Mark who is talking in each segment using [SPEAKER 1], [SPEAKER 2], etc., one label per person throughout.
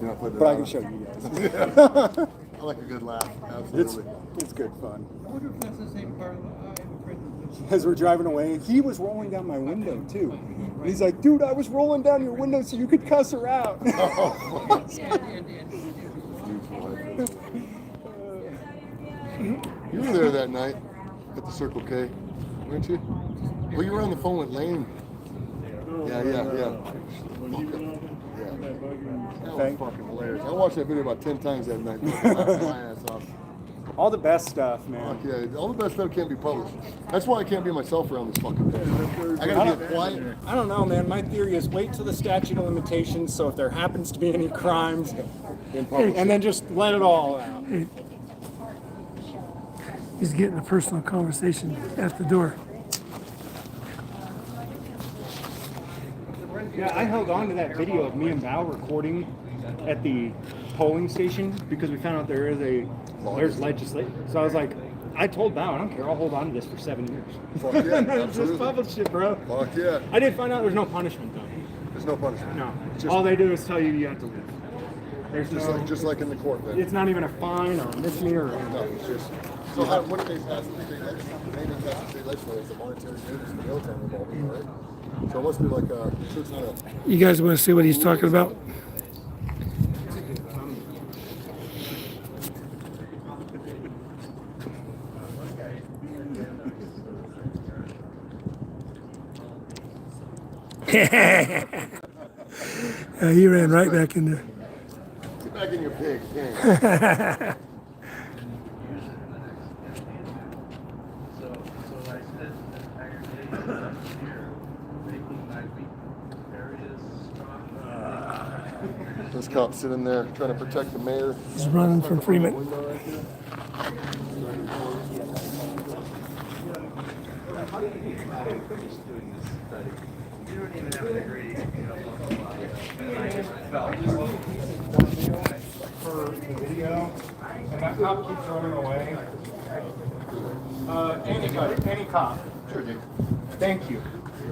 [SPEAKER 1] You're not putting it
[SPEAKER 2] But I
[SPEAKER 1] on.
[SPEAKER 2] can show you guys.
[SPEAKER 1] I like a good laugh.
[SPEAKER 2] It's,
[SPEAKER 1] Absolutely.
[SPEAKER 2] it's good fun.
[SPEAKER 3] I wonder if that's the same part of the eye of the prison.
[SPEAKER 2] As we're driving away, he was rolling down my window too. And he's like, dude, I was rolling down your window so you could cuss her out.
[SPEAKER 3] And- and- and-
[SPEAKER 1] you were there that night at the Circle K, weren't you? Well, you were on the phone with Lane. Yeah, yeah, yeah.
[SPEAKER 4] When you went over,
[SPEAKER 1] Yeah.
[SPEAKER 4] that bugger and
[SPEAKER 1] That was
[SPEAKER 2] Thank-
[SPEAKER 1] fucking hilarious. I watched that video about ten times that night. Laughed my ass off.
[SPEAKER 2] All the best stuff,
[SPEAKER 1] Fuck
[SPEAKER 2] man.
[SPEAKER 1] yeah! All the best stuff can't be published. That's why I can't be myself around this fucking thing. I gotta be quiet.
[SPEAKER 2] I don't know, man. My theory is wait till the statute of limitations. So if there happens to be any crimes,
[SPEAKER 1] In public.
[SPEAKER 2] and then just let it all out.
[SPEAKER 5] He's getting a personal conversation at the door.
[SPEAKER 2] Yeah, I held on to that video of me and Val recording at the polling station because we found out there is a there's legislation. So I was like, I told Val, I don't care, I'll hold on to this for seven years.
[SPEAKER 1] Fuck yeah, absolutely.
[SPEAKER 2] Just publish it, bro.
[SPEAKER 1] Fuck yeah!
[SPEAKER 2] I did find out there's no punishment though.
[SPEAKER 1] There's no punishment.
[SPEAKER 2] No,
[SPEAKER 1] Just,
[SPEAKER 2] all they do is tell you you have to leave. There's
[SPEAKER 1] just
[SPEAKER 2] no.
[SPEAKER 1] like just like in the court then.
[SPEAKER 2] it's not even a fine or a misdemeanor. Or
[SPEAKER 1] No, it's just. So how, what did they pass? Did they legislate? They didn't pass the state legislature. It's a monetary payments for military involvement, right? So it must be like a. So it's not a.
[SPEAKER 5] You guys want to see what he's talking about? Yeah, Uh, he ran right back in there.
[SPEAKER 1] Get back in your pig. pig.
[SPEAKER 6] So, so I said that aggregate last year, making my weak areas strong.
[SPEAKER 1] This cop's sitting there trying to protect the mayor.
[SPEAKER 5] He's running from Freeman.
[SPEAKER 1] Window right there.
[SPEAKER 6] You don't even have to agree. you know, blah, blah, blah. Felt.
[SPEAKER 7] for the video, and that cop keeps running away.
[SPEAKER 2] Uh, anybody, any cop.
[SPEAKER 1] Sure, dude.
[SPEAKER 2] Thank you.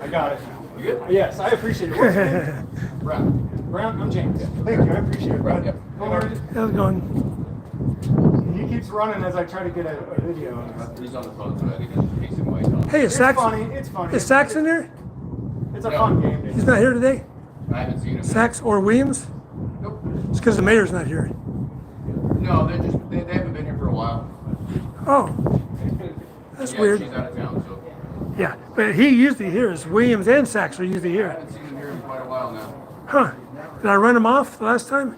[SPEAKER 2] I got it now. You good? Yes, I appreciate it. What's your name? Brown. Brown, I'm James. Thank you, I appreciate it. Brown,
[SPEAKER 5] How's it going?
[SPEAKER 2] He keeps running as I try to get a, a video. on it.
[SPEAKER 8] He's on the phone already. He's in White House.
[SPEAKER 5] Hey, is
[SPEAKER 2] It's
[SPEAKER 5] Sax,
[SPEAKER 2] funny. It's funny.
[SPEAKER 5] is Sax in there?
[SPEAKER 2] It's a fun game.
[SPEAKER 5] He's not here today?
[SPEAKER 8] I haven't seen him.
[SPEAKER 5] Sax or Williams?
[SPEAKER 8] Nope.
[SPEAKER 5] It's because the mayor's not here.
[SPEAKER 8] No, they're just, they, they haven't been here for a while.
[SPEAKER 5] Oh, that's
[SPEAKER 8] yeah,
[SPEAKER 5] weird.
[SPEAKER 8] She's out of town, so
[SPEAKER 5] Yeah, but he usually here is Williams and Sax are usually
[SPEAKER 8] I
[SPEAKER 5] here.
[SPEAKER 8] haven't seen him here in quite a while now.
[SPEAKER 5] Huh? Did I run him off the last time?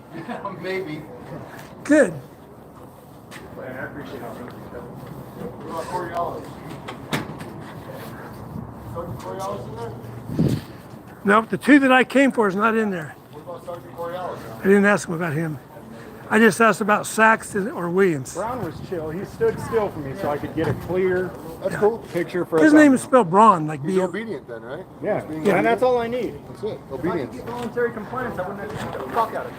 [SPEAKER 8] Maybe.
[SPEAKER 5] Good.
[SPEAKER 1] What about Coriolis? Sergeant Coriolis in there?
[SPEAKER 5] Nope, the two that I came for is not in there.
[SPEAKER 1] What about Sergeant Coriolis?
[SPEAKER 5] I didn't ask him about him. I just asked about Sax and- or Williams.
[SPEAKER 2] Brown was chill. He stood still for me so I could get a clear
[SPEAKER 1] That's cool.
[SPEAKER 2] picture for
[SPEAKER 5] His
[SPEAKER 2] us all.
[SPEAKER 5] name is spelled Braun, like
[SPEAKER 1] He's
[SPEAKER 5] B.
[SPEAKER 1] obedient then, right?
[SPEAKER 2] Yeah,
[SPEAKER 1] He's being
[SPEAKER 2] and that's all I need.
[SPEAKER 1] That's it. Obedience.
[SPEAKER 2] Voluntary compliance. I wouldn't have the fuck out of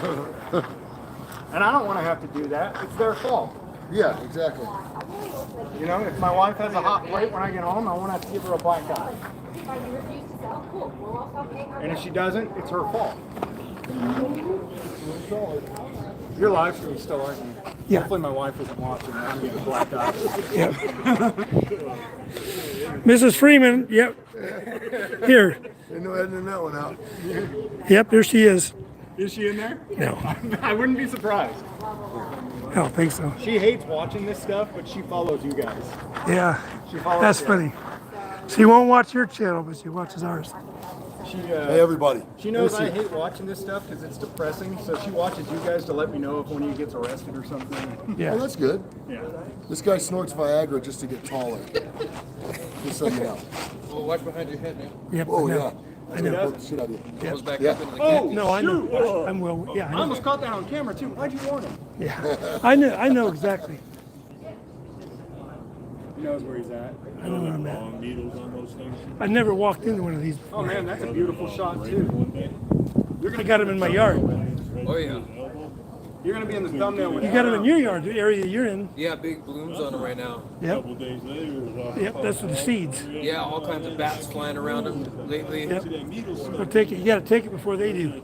[SPEAKER 2] people. and I don't want to have to do that. It's their fault.
[SPEAKER 1] Yeah, exactly.
[SPEAKER 2] You know, if my wife has a hot plate when I get home, I won't have to give her a black eye. And if she doesn't, it's her fault. Your live stream's still on.
[SPEAKER 5] Yeah.
[SPEAKER 2] Hopefully my wife isn't watching. and I'm getting a black eye.
[SPEAKER 5] Yep. Mrs. Freeman, yep. Here.
[SPEAKER 1] Ain't no editing that one out.
[SPEAKER 5] Yep, there she is.
[SPEAKER 2] Is she in there?
[SPEAKER 5] No,
[SPEAKER 2] I wouldn't be surprised.
[SPEAKER 5] I don't think so.
[SPEAKER 2] She hates watching this stuff, but she follows you guys.
[SPEAKER 5] Yeah,
[SPEAKER 2] She follows.
[SPEAKER 5] that's
[SPEAKER 2] you.
[SPEAKER 5] funny. She won't watch your channel, but she watches ours.
[SPEAKER 2] She
[SPEAKER 1] Hey,
[SPEAKER 2] uh,
[SPEAKER 1] everybody.
[SPEAKER 2] she knows I hate watching this stuff because it's depressing. So she watches you guys to let me know if one of you gets arrested or something.
[SPEAKER 1] Well,
[SPEAKER 5] Yeah.
[SPEAKER 1] that's good.
[SPEAKER 2] yeah.
[SPEAKER 1] This guy snorts Viagra just to get taller. Just so you know.
[SPEAKER 8] Well, watch behind your head, man.
[SPEAKER 5] Yep.
[SPEAKER 1] Oh,
[SPEAKER 5] I know.
[SPEAKER 1] yeah. That's gonna poke the shit out of you.
[SPEAKER 8] Goes back
[SPEAKER 1] Yeah.
[SPEAKER 8] up into the
[SPEAKER 2] Oh
[SPEAKER 5] No, I
[SPEAKER 2] shoot!
[SPEAKER 5] know. I'm well. Yeah, I
[SPEAKER 2] I
[SPEAKER 5] know.
[SPEAKER 2] almost caught that on camera too. Why'd you warn him?
[SPEAKER 5] Yeah, I know. I know exactly.
[SPEAKER 2] He knows where he's at.
[SPEAKER 5] I know where I'm at.
[SPEAKER 4] long needles on those things.
[SPEAKER 5] I never walked into one of these.
[SPEAKER 2] Oh man, that's a beautiful shot too.
[SPEAKER 5] You're gonna got them in my yard.
[SPEAKER 8] Oh, yeah.
[SPEAKER 2] You're gonna be in the thumbnail with
[SPEAKER 5] You got them in your yard, the area you're in.
[SPEAKER 8] Yeah, big blooms on him right now.
[SPEAKER 5] Yep.
[SPEAKER 4] Couple days later, it was uh, all
[SPEAKER 5] Yep. That's the seeds.
[SPEAKER 8] Yeah, all kinds of bats flying around him lately.
[SPEAKER 5] Yep.
[SPEAKER 4] That needle stuck.
[SPEAKER 5] So take it. You gotta take it before they do.